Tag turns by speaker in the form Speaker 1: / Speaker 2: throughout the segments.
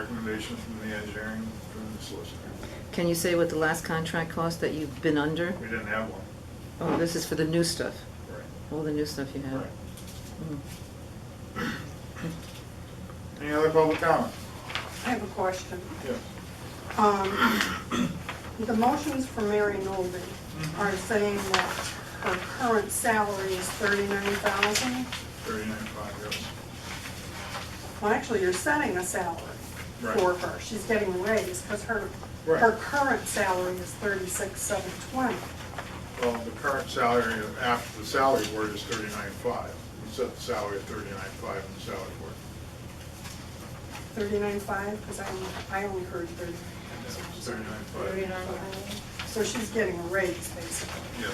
Speaker 1: recommendation from the engineering, from the solicitor.
Speaker 2: Can you say what the last contract cost that you've been under?
Speaker 1: We didn't have one.
Speaker 2: Oh, this is for the new stuff,
Speaker 1: Right.
Speaker 2: all the new stuff you have.
Speaker 1: Right.
Speaker 2: Mm.
Speaker 1: Any other public comment?
Speaker 3: I have a question.
Speaker 1: Yes.
Speaker 3: Um, The motions for Mary Noldie are saying that her current salary is thirty-nine thousand.
Speaker 1: Thirty-nine five, yes.
Speaker 3: Well, actually, you're setting a salary for
Speaker 1: Right.
Speaker 3: her. She's getting a raise because her,
Speaker 1: Right.
Speaker 3: her current salary is thirty-six seven twenty.
Speaker 1: Well, the current salary after the salary board is thirty-nine five. We set the salary at thirty-nine five in the salary board.
Speaker 3: Thirty-nine five, because I only, I only heard thirty-nine thousand.
Speaker 1: It's 39,500.
Speaker 3: So she's getting a raise, basically.
Speaker 1: Yes.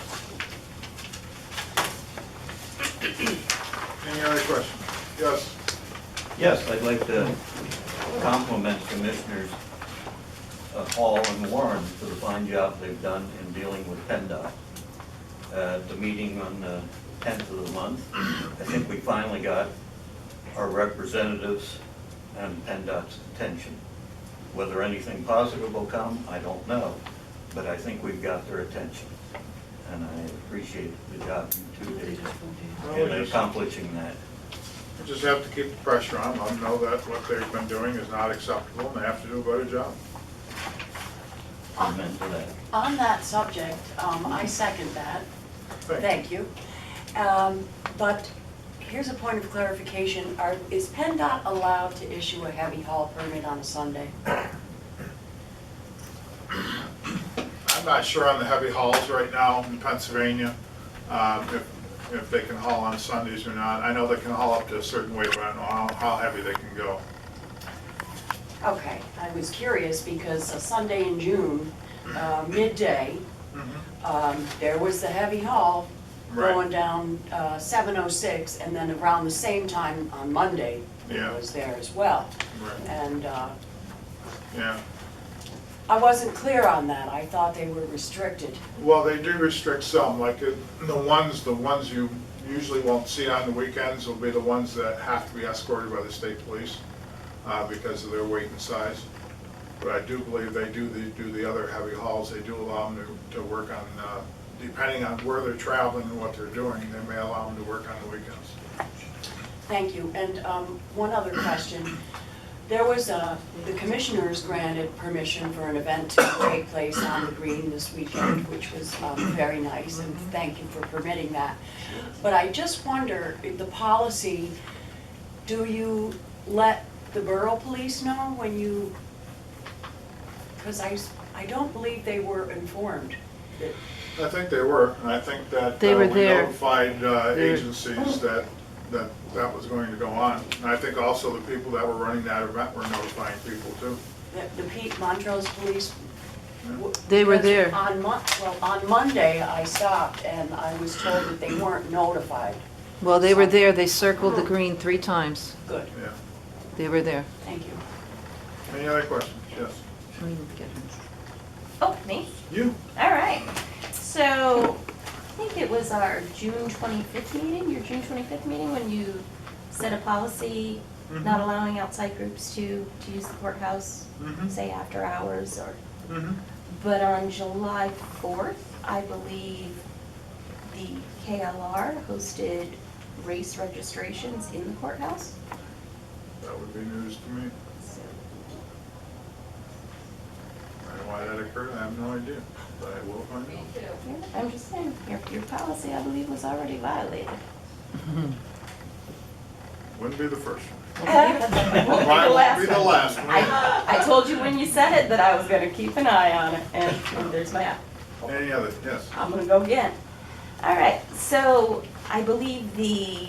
Speaker 1: Any other questions? Yes.
Speaker 4: Yes, I'd like to compliment Commissioners uh, Hall and Warren for the fine job they've done in dealing with PennDOT. Uh, At the meeting on the 10th of the month, I think we finally got our representatives and PennDOT's attention. Whether anything positive will come, I don't know, but I think we've got their attention. And I appreciate the job you two did
Speaker 1: Well,
Speaker 4: in
Speaker 1: we just-
Speaker 4: accomplishing that.
Speaker 1: we Just have to keep the pressure on, let them know that what they've been doing is not acceptable and they have to do a better job.
Speaker 4: Amen to that.
Speaker 5: On that subject, um, I second that,
Speaker 1: Thank
Speaker 5: thank you. Um, but here's a point of clarification, are, is PennDOT allowed to issue a heavy haul permit on a Sunday?
Speaker 1: you. I'm not sure on the heavy hauls right now in Pennsylvania, um, if, if they can haul on Sundays or not. I know they can haul up to a certain weight, but I don't know how, how heavy they can go.
Speaker 5: Okay, I was curious because a Sunday in June, uh, midday, um, there was the heavy haul
Speaker 1: Mm-hmm. Right.
Speaker 5: going down, uh, seven oh six, and then around the same time on Monday,
Speaker 1: Yeah.
Speaker 5: it was there as well.
Speaker 1: Right.
Speaker 5: And, uh,
Speaker 1: Yeah.
Speaker 5: I wasn't clear on that, I thought they were restricted.
Speaker 1: Well, they do restrict some, like uh, the ones, the ones you usually won't see on the weekends will be the ones that have to be escorted by the state police uh, because of their weight and size. But I do believe they do, they do the other heavy hauls, they do allow them to, to work on, uh, depending on where they're traveling and what they're doing, they may allow them to work on the weekends.
Speaker 5: Thank you. And um, one other question. There was, a- the commissioners granted permission for an event to take place on the green this weekend, which was um, very nice, and thank you for permitting that. But I just wonder, the policy, do you let the borough police know when you, because I, s- I don't believe they were informed.
Speaker 1: I think they were, and I think that
Speaker 2: They
Speaker 1: uh,
Speaker 2: were
Speaker 1: we
Speaker 2: there.
Speaker 1: notified uh,
Speaker 2: They were-
Speaker 1: agencies that, that that was going to go on. And I think also the people that were running that event were notifying people too.
Speaker 5: The- The Pete Montrose Police. w-
Speaker 2: They were
Speaker 5: because
Speaker 2: there.
Speaker 5: On Mon, well, on Monday, I stopped and I was told that they weren't notified.
Speaker 2: Well, they were there, they circled the green three times,
Speaker 5: Good,
Speaker 1: Yeah.
Speaker 2: they were there.
Speaker 5: thank you.
Speaker 1: Any other questions? Yes.
Speaker 2: Let me get her.
Speaker 6: Oh, me?
Speaker 1: You?
Speaker 6: All right. So I think it was our June 25th meeting, your June 25th meeting, when you set a policy not allowing outside groups to, to use the courthouse,
Speaker 1: Mhm.
Speaker 6: say after hours or,
Speaker 1: Mm-hmm.
Speaker 6: but on July 4th, I believe the KLR hosted race registrations in the courthouse.
Speaker 1: That would be news to me.
Speaker 6: So
Speaker 1: I don't know why that occurred, I have no idea, but I will find out.
Speaker 6: yeah, I'm just saying, your, your policy, I believe, was already violated.
Speaker 1: Wouldn't be the first one.
Speaker 6: Won't be the
Speaker 1: Mine
Speaker 6: last
Speaker 1: won't be the
Speaker 6: one.
Speaker 1: last one.
Speaker 6: I, I told you when you said it that I was gonna keep an eye on it, and and there's my eye.
Speaker 1: Any other, yes.
Speaker 6: I'm gonna go again. All right, so I believe the,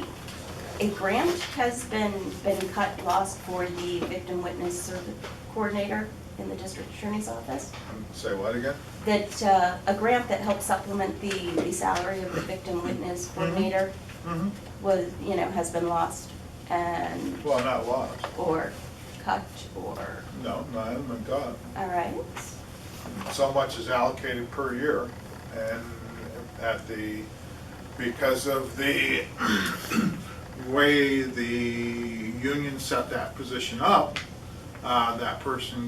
Speaker 6: a grant has been, been cut, lost for the victim witness service coordinator in the district attorney's office.
Speaker 1: Um, Say what again?
Speaker 6: That, uh, a grant that helps supplement the, the salary of the victim witness coordinator
Speaker 1: Mm-hmm.
Speaker 6: was, you know, has been lost and,
Speaker 1: Well, not lost.
Speaker 6: or cut, or,
Speaker 1: No, not in the gut.
Speaker 6: all right?
Speaker 1: so much is allocated per year, and at the, because of the way the union set that position up, uh, that person